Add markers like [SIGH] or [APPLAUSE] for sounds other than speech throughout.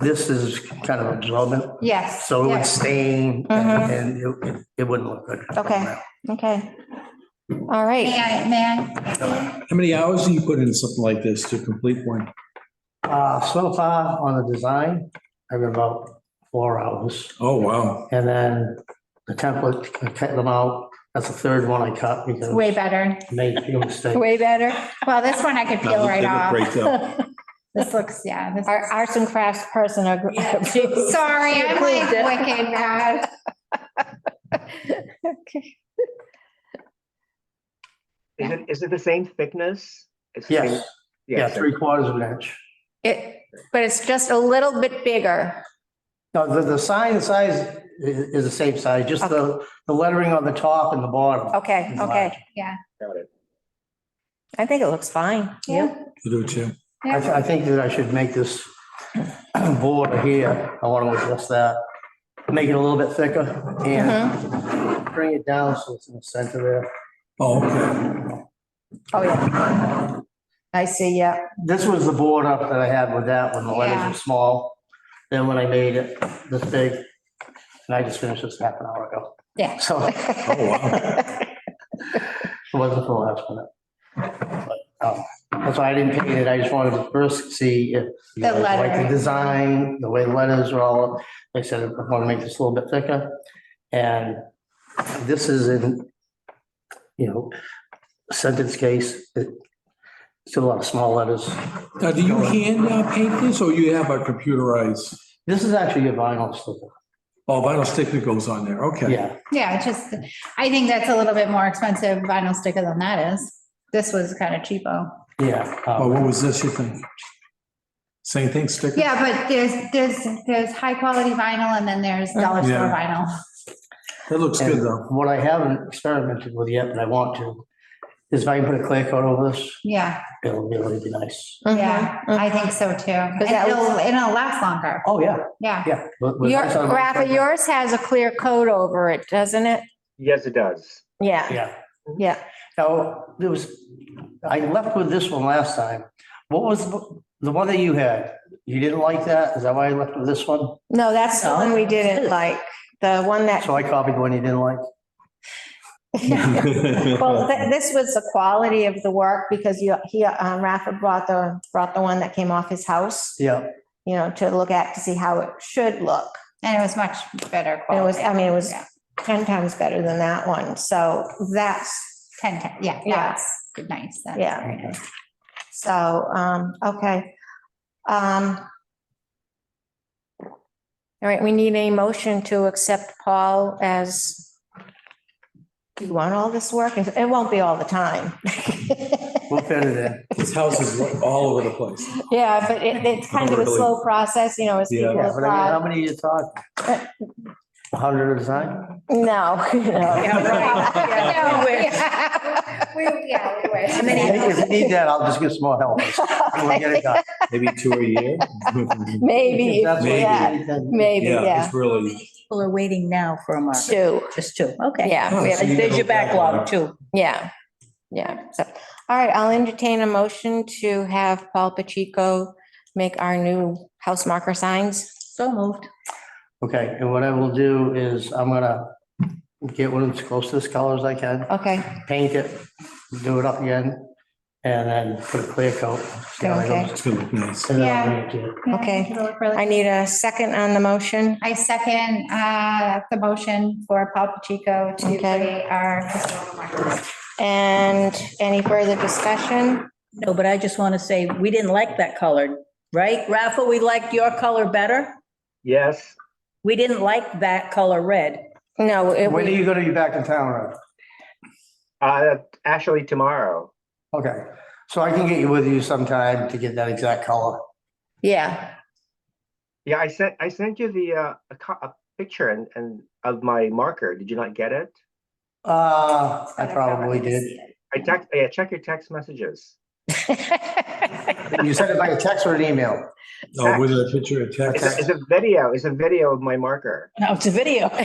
This is kind of absorbent, Yes. so it would yes. stain Mhm. and it- it wouldn't look good. Okay. Okay. All May right. I, may I? How many hours do you put in something like this to complete one? Uh, so far on the design, I've been about four hours. Oh, wow. And then the template, I cut them out. That's the third one I cut because Way better. I made a few mistakes. Way better. Well, this one I could No, peel right they look off. great, though. This looks, yeah. this- Our arts and crafts [LAUGHS] person. ag- Sorry, I'm like Approved it. wicked mad. Okay. Is it, is it the same thickness? It's the same- Yes, yeah, so- three quarters of an inch. It, but it's just a little bit bigger. No, the, the sign size i- is the same size, just the, the lettering on the top and the bottom. Okay, is large. okay. Got it. I think it looks fine. You? I'll Do it too. I, th- I think that I should make this [CLEARS THROAT] board here, I want to adjust that, make it a little bit thicker and bring it down so it's in the center there. Oh, okay. Oh, yeah. I see, yeah. This was the board up that I had with that when the letters Yeah. were small. Then when I made it this big, and I just finished this half an hour ago. Yeah. So it Oh, wasn't for last minute. But, um, That's why I didn't paint it. I just wanted to first see if you The guys like lettering. the design, the way the letters are all. Like I said, I want to make this a little bit thicker. And this is in, you know, sentence case, it- still a lot of small letters. Now, do you hand uh, paint this or you have a computerized? This is actually a vinyl sticker. Oh, vinyl sticker goes on there. Okay. Yeah, Yeah, it's just, I think that's a little bit more expensive vinyl sticker than that is. This was kind of cheapo. yeah. Oh, um, what was this, you think? Same thing, sticker? Yeah, but there's, there's, there's high quality vinyl and then there's Uh-huh. dollar store Yeah. vinyl. That looks good, though. and What I haven't experimented with yet, but I want to, is if I can put a clear coat over this, Yeah, it'll really be nice. yeah, Mhm. I think so too. And that it'll, looks- it'll last longer. Oh, yeah, Yeah. yeah. with- with Your, ice on it. Rafa, yours has a clear coat over it, doesn't it? Yes, it does. Yeah, Yeah. yeah. Now, there was, I left with this one last time. What was the- the one that you had? You didn't like that? Is that why I left with this one? No, that's the No? one [LAUGHS] we didn't like, the one that, So I copied one you didn't like? [LAUGHS] well, th- this was the quality of the work because you, he, um, Rafa brought the, brought the one that came off his house, Yeah, you know, to look at, to see how it should look. And it was much better It quality. was, I mean, it was Yeah. 10 times better than that one. So that's, Ten, ten, yeah, Yeah. that's nice. That's Yeah. very nice. so, um, okay. Um, All right, we need a motion to accept Paul as, you want all this work? It won't be all the time. [LAUGHS] we'll fit it in. This house is all over the place. Yeah, but it, it's kind of a Really? slow process, you know, as Yeah. people Yeah, but I mean, how apply. many you talk? A hundred at a time? No, [LAUGHS] no. Yeah, [LAUGHS] Yeah, right. right. [LAUGHS] Yeah. We wish. We- yeah, we wish. Many- If you need that, I'll just get some more [LAUGHS] help. and We'll get it done. Maybe two a year? Maybe, If that's what you yeah, need, then- maybe, Yeah, yeah, it's really. People are waiting now for a mark, two, just two, okay. yeah, we have- So you There's your don't have backlog that. too. yeah, yeah. So, all right, I'll entertain a motion to have Paul Pacheco make our new house marker signs. So moved. Okay, and what I will do is I'm gonna get one as close to this color as I can, Okay, paint it, do it up again, and then put a clear coat. see how it Okay. goes. It's gonna look nice. And then I'll bring it to you. Yeah, Okay. it'll look really- I need a second on the motion. I second uh, the motion for Paul Pacheco to Okay. create our historical markers. And any further discussion? No, but I just want to say, we didn't like that color, right? Rafa, we liked your color better. Yes, We didn't like that color red. No, it, When are we- you gonna be back in town, Rob? uh, actually tomorrow. Okay, so I can get you with you sometime to get that exact color. yeah, [LAUGHS] Yeah, I sent, I sent you the, uh, a co- a picture and, and of my marker. Did you not get it? Uh, I But probably can did. see it. I text, yeah, check your text messages. You sent it by a text or an email? Oh, with a picture of It's text. a, it's a video, it's a video of my marker. No, it's a video. [LAUGHS]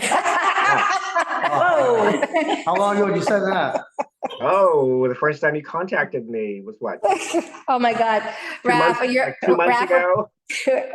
Oh. How long ago did you send that? Oh, the first time you contacted me was what? Oh, my God. Two months- Rafa, you're, Like two months Rafa, ago?